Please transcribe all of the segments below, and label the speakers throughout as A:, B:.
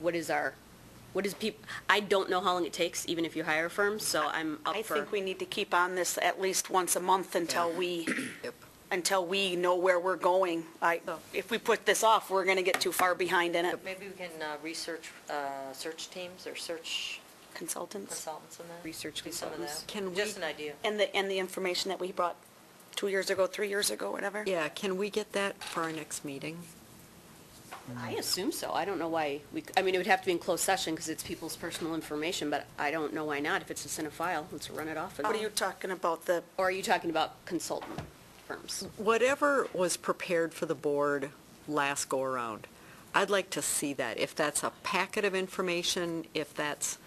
A: what is our, what is peop, I don't know how long it takes, even if you hire a firm, so I'm up
B: I
A: for.
B: think we need to keep on this at least once a month until we,
C: Yep.
B: until we know where we're going. I, if we put this off, we're going to get too far behind in it.
D: Maybe we can uh, research, uh, search teams or search
B: Consultants.
D: consultants in that?
A: Research
D: Do some of
A: consultants.
D: that.
C: Can
D: Just
C: we-
D: an idea.
B: And the, and the information that we brought two years ago, three years ago, whatever.
C: Yeah, can we get that for our next meeting?
A: I assume so. I don't know why we, c- I mean, it would have to be in closed session because it's people's personal information, but I don't know why not. If it's a cinephile, let's run it off. and-
B: What are you talking about, the,
A: Or are you talking about consultant firms?
C: Whatever was prepared for the board last go-around, I'd like to see that. If that's a packet of information, if that's,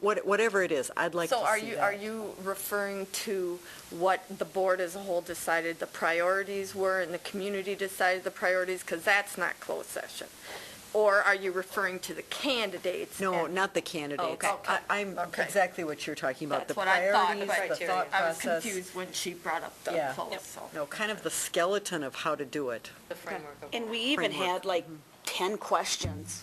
C: what- whatever it is, I'd like to see
E: So are you,
C: that.
E: are you referring to what the board as a whole decided the priorities were and the community decided the priorities? Because that's not closed session. Or are you referring to the candidates?
C: No,
E: and-
C: not the candidates.
E: Okay.
C: I- I'm
E: Okay.
C: exactly what you're talking about, the
E: That's what I thought,
C: priorities,
E: but
C: the thought
E: I was
C: process.
E: confused when she brought up the
C: Yeah.
E: closed, so.
C: No, kind of the skeleton of how to do it.
D: The framework of.
B: and we even
C: Framework.
B: had like
A: Mm-hmm.
B: 10 questions.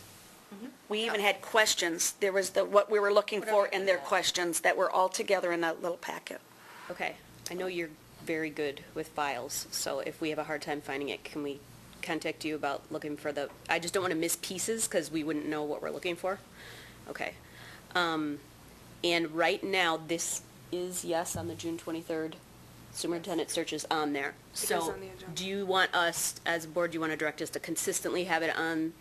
B: We even had questions. There was the, what we were looking for and their questions that were all together in that little packet.
A: Okay, I know you're very good with files, so if we have a hard time finding it, can we contact you about looking for the, I just don't want to miss pieces because we wouldn't know what we're looking for? Okay. Um, And right now, this is yes on the June 23rd. Superintendent search is on there. So do you want us, as a board, do you want to direct us to consistently have it on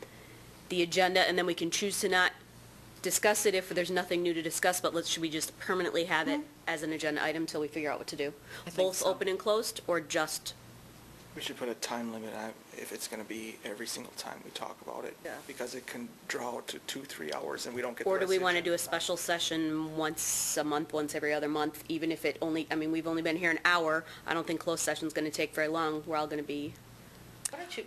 A: the agenda and then we can choose to not discuss it if there's nothing new to discuss, but let's, should we just permanently have it as an agenda item till we figure out what to do?
C: Mm. I think
A: Both
C: so.
A: open and closed, or just,
F: We should put a time limit on if it's gonna be every single time we talk about it.
A: Yeah.
F: Because it can draw out to two, three hours and we don't get the
A: or do we
F: rest of
A: want to
F: the
A: do a
F: agenda.
A: special session once a month, once every other month, even if it only, I mean, we've only been here an hour. I don't think closed session's going to take very long. We're all going to be,
D: Why don't you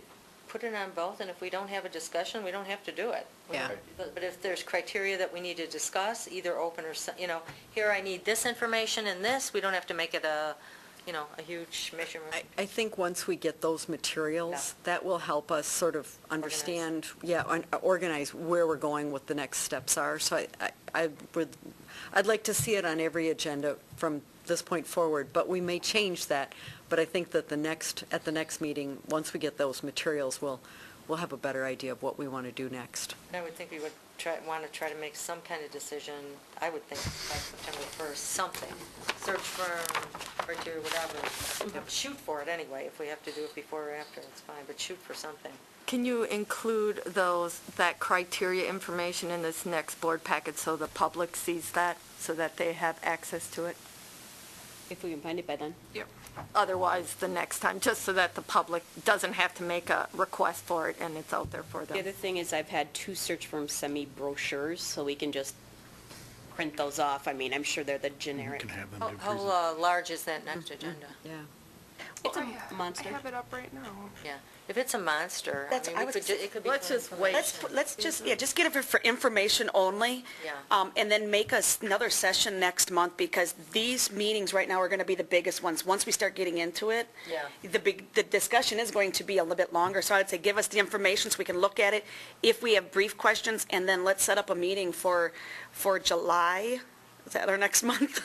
D: put it on both, and if we don't have a discussion, we don't have to do it. We
C: Yeah.
D: don't- But but if there's criteria that we need to discuss, either open or, se- you know, here I need this information and this, we don't have to make it a, you know, a huge measurement.
C: I, I think once we get those materials, that will help us sort of understand, yeah, un- uh, organize where we're going, what the next steps are. So I, I- I would, I'd like to see it on every agenda from this point forward, but we may change that. But I think that the next, at the next meeting, once we get those materials, we'll, we'll have a better idea of what we want to do next.
D: And I would think we would try, want to try to make some kind of decision, I would think, by September 1st, something, search firm, criteria,
B: Mm-hmm.
D: whatever. Shoot for it anyway, if we have to do it before or after, it's fine, but shoot for something.
E: Can you include those, that criteria information in this next board packet so the public sees that, so that they have access to it?
A: if we can find it by then.
E: Otherwise, the next time, just so that the public doesn't have to make a request for it and it's out there for
A: The other
E: them.
A: thing is I've had two search firms send me brochures, so we can just print those off. I mean, I'm sure they're the generic.
G: can have them
D: How-
G: do present-
D: How uh, large is that next
B: Mm-hmm.
D: agenda?
C: Yeah.
A: It's
H: I
A: a
H: ha-
A: monster.
H: I have it up right now.
D: Yeah, if it's a monster, I
B: That's- I
D: mean, we
B: was
D: could, ju-
B: gonna say-
D: it could be.
E: Let's
D: for
E: just wait.
B: Let's,
D: information.
B: put- let's just, yeah, just get it for information only.
D: Yeah.
B: Um, and then make us another session next month, because these meetings right now are gonna be the biggest ones. Once we start getting into it.
D: Yeah.
B: The big, the discussion is going to be a little bit longer, so I'd say give us the information so we can look at it. If we have brief questions, and then let's set up a meeting for, for July. Is that our next month?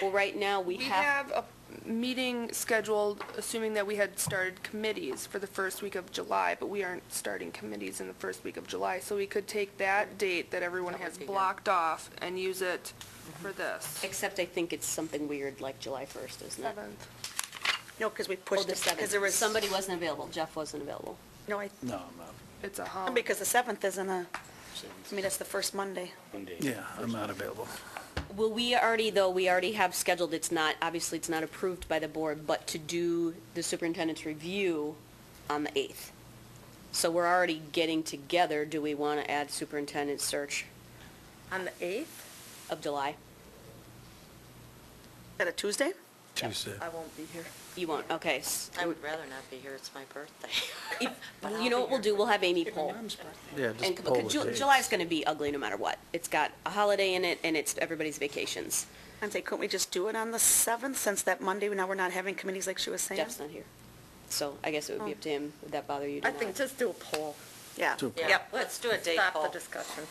A: Well, right now, we
H: We
A: have,
H: have a meeting scheduled, assuming that we had started committees for the first week of July, but we aren't starting committees in the first week of July, so we could take that date that everyone
D: That would
H: has
D: be good.
H: blocked off and use it for this.
A: except I think it's something weird like July 1st, isn't it?
H: Seventh.
B: No, because we
A: Oh,
B: pushed
A: the
B: it, because
A: 7th.
B: there was.
A: Somebody wasn't available. Jeff wasn't available.
B: No, I,
G: No, I'm out.
H: It's a holiday.
B: because the seventh isn't a, I mean, that's the first Monday.
G: Yeah, I'm not available.
A: Well, we already, though, we already have scheduled, it's not, obviously, it's not approved by the board, but to do the superintendent's review on the 8th. So we're already getting together. Do we want to add superintendent search
E: On the 8th,
A: of July?
B: Is that a Tuesday?
G: Tuesday.
E: I won't be here.
A: You won't, okay. s-
D: I would rather not be here, it's my birthday.
A: if- You know what we'll do? We'll have Amy poll.
G: Yeah,
A: And,
G: just poll
A: because
G: the
A: Ju-
G: dates.
A: July's going to be ugly no matter what. It's got a holiday in it, and it's everybody's vacations.
B: And say, couldn't we just do it on the seventh, since that Monday, now we're not having committees like she was saying?
D: Oh.
A: Jeff's not here. So I guess it would be up to him. Would that bother you? to
E: I
A: not?
E: think just do a poll,
B: yeah.
G: Two.
B: Yep.
D: Let's do a date
E: Stop
D: poll.
E: the discussion.